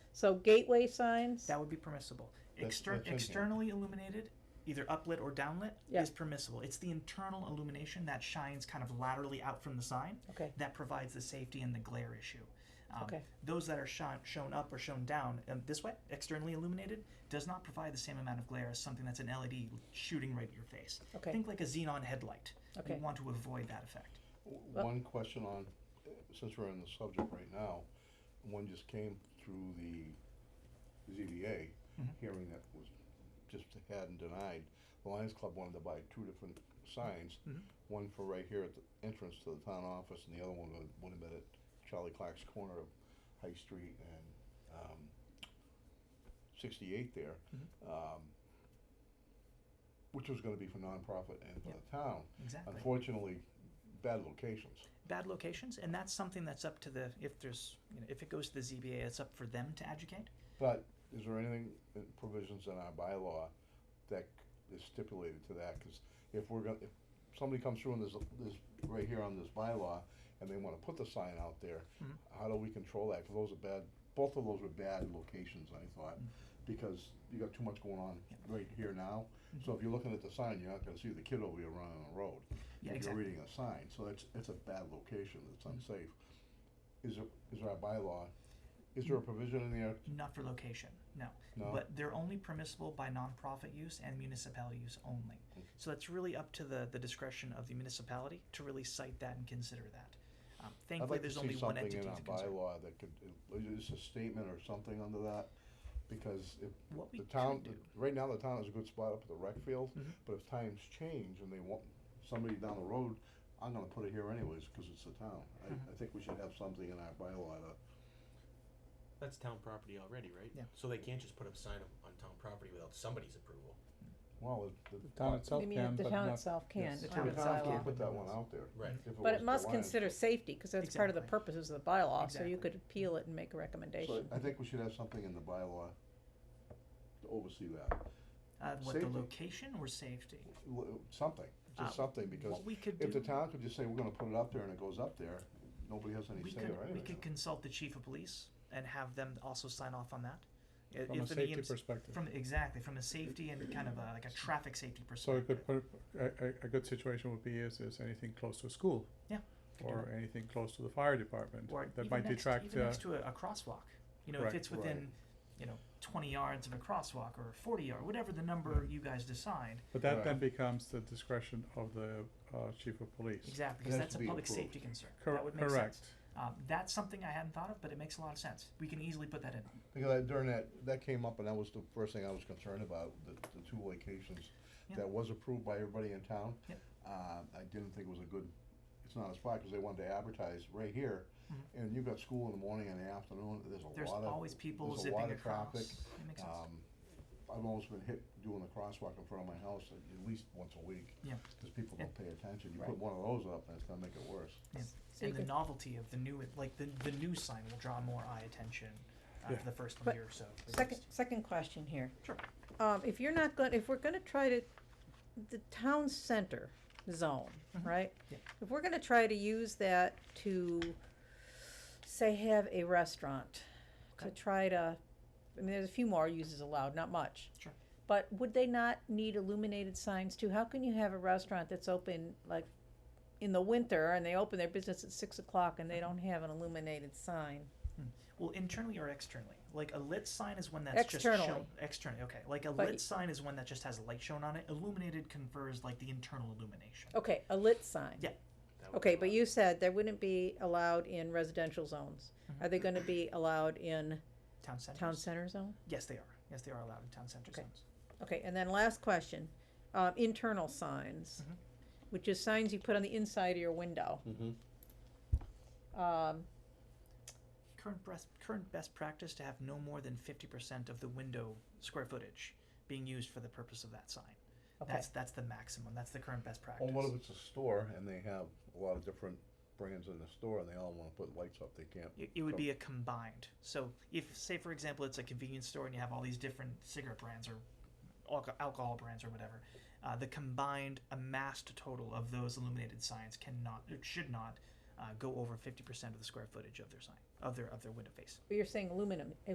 So gateway signs, That would be permissible. That- Exter- that's in here. externally illuminated, either uplit or downlit, Yeah. is permissible. It's the internal illumination that shines kind of laterally out from the sign okay, that provides the safety and the glare issue. Um, Okay. Those that are shone, shown up or shown down um, this way, externally illuminated, does not provide the same amount of glare as something that's an LED shooting right at your face. okay, Think like a xenon headlight. okay. You want to avoid that effect. W- Well- One question on, since we're on the subject right now, one just came through the ZBA Mhm. hearing that was just had and denied. The Lions Club wanted to buy two different signs, Mhm. one for right here at the entrance to the town office, and the other one would, would have been at Charlie Clark's corner of High Street and, um, sixty-eight there. Um, which was gonna be for nonprofit and for Yeah. the town. Exactly. Unfortunately, bad locations. bad locations, and that's something that's up to the if there's you know, if it goes to the ZBA, it's up for them to educate. But is there anything, in provisions in our bylaw that c- is stipulated to that? Because if we're gonna, if somebody comes through and there's, a- there's, right here on this bylaw, and they wanna put the sign out there, Mhm. how do we control that? 'Cause those are bad, both of those were bad locations, I thought, because you got too much going on Yep. right here now. So if you're looking at the sign, you're not gonna see the kid over here running on the road. Yeah, if you're exactly. reading a sign, so that's, it's a bad location, it's Mhm. unsafe. Is there, is there a bylaw, is there a Mm-hmm. provision in there? Not for location, no. No? But they're only permissible by nonprofit use and municipal use only. Okay. So that's really up to the, the discretion of the municipality to really cite that and consider that. Um, I'd thankfully, like to there's see only one entity to Something in consider. our bylaw that could, is this a statement or something under that? Because if What we the could town, do, right now, the town is a good spot up at the rec field, Mhm. but if times change and they want somebody down the road, I'm gonna put it here anyways, cause it's the town. I, Mhm. I think we should have something in our bylaw to, That's town property already, right? Yeah. So they can't just put up sign on, on town property without somebody's approval. well, the. The town itself You mean can, if the but town not, itself can, Yes. the The town town town bylaw. can't put that one out there. Right. if But was it the must Lions consider Club. safety, cause that's part of the Exactly. purposes of the bylaw, so you Exactly. could appeal it and make a So recommendation. I think we should have something in the bylaw to oversee that, uh, what the safety. location or safety? L- something, Uh, just something, because What we could do. If the town could just say, we're gonna put it up there and it goes up there, nobody has any We say could, or we could anything. consult the chief of police and have them also sign off on that. I- from a if an safety EMS perspective. From, exactly, from a safety and kind of a, like a traffic safety So a perspective. good, per- a, a, a good situation would be is, is anything close to a school Could do or anything close to the fire department. that. Or That even might next- detract, Even uh, next to a, a crosswalk, you know, if Right. it's within, you know, twenty yards of a crosswalk or forty yard, whatever the number you guys decide, but that then Right. becomes the discretion of the, uh, chief of police. exactly, It because has that's to a be public approved. safety concern. Cor- That would make sense. Correct. Um, that's something I hadn't thought of, but it makes a lot of sense. We can easily put that in. Because I- during that, that came up and that was the first thing I was concerned about, the, the two locations Yeah. that was approved by everybody in town. Yep. Uh, I didn't think it was a good, it's not a spot, cause they wanted to advertise right here, Mhm. and you've got school in the morning and the afternoon, there's a lot of. There's always people there's a zipping lot of across. traffic, It makes sense. Um, I've almost been hit doing the crosswalk in front of my house at, at least once a week. Yeah. Cause people Yeah. don't pay attention, you Right. put one of those up and it's gonna make it worse. So you And the could- novelty of the new, like the, the new sign will draw more eye attention uh, Yeah. for the first But year or so. at Second, least. second question here. Sure. Um, if you're not gonna, if we're gonna try to, the town center zone, Mhm. right? Yeah. If we're gonna try to use that to, say, have a restaurant, to Okay. try to, I mean, there's a few more uses allowed, not much. Sure. But would they not need illuminated signs too? How can you have a restaurant that's open like in the winter and they open their business at six o'clock and they don't Mm-hmm. have an illuminated sign? Well, internally or externally? Like a lit sign is one that's just shown Externally. externally. Okay. Like a But- lit sign is one that just has a light shown on it. Illuminated confers like the internal illumination. Okay, a lit sign. Yeah. That would Okay, be but allowed. you said they wouldn't be allowed in residential zones. Mm-hmm. Are they gonna be allowed in Town centers. town center zone? Yes, they are. Yes, they are allowed in town center Okay. zones. Okay, and then last question, uh, internal signs, Mm-hmm. Mhm. which is signs you put on the inside of your window. Mm-hmm. Mm-hmm. Um, Current best current best practice to have no more than fifty percent of the window square footage being used for the purpose of that sign. okay, That's that's the maximum. That's the current best practice. Well, what if it's a store and they have a lot of different brands in the store and they all wanna put lights up, they can't. It, it would So- be a combined. So if, say, for example, it's a convenience store and you have all these different cigarette brands or alco- alcohol brands or whatever, uh, the combined amassed total of those illuminated signs cannot, or should not, uh, go over fifty percent of the square footage of their sign, of their of their window face. but you're saying aluminum,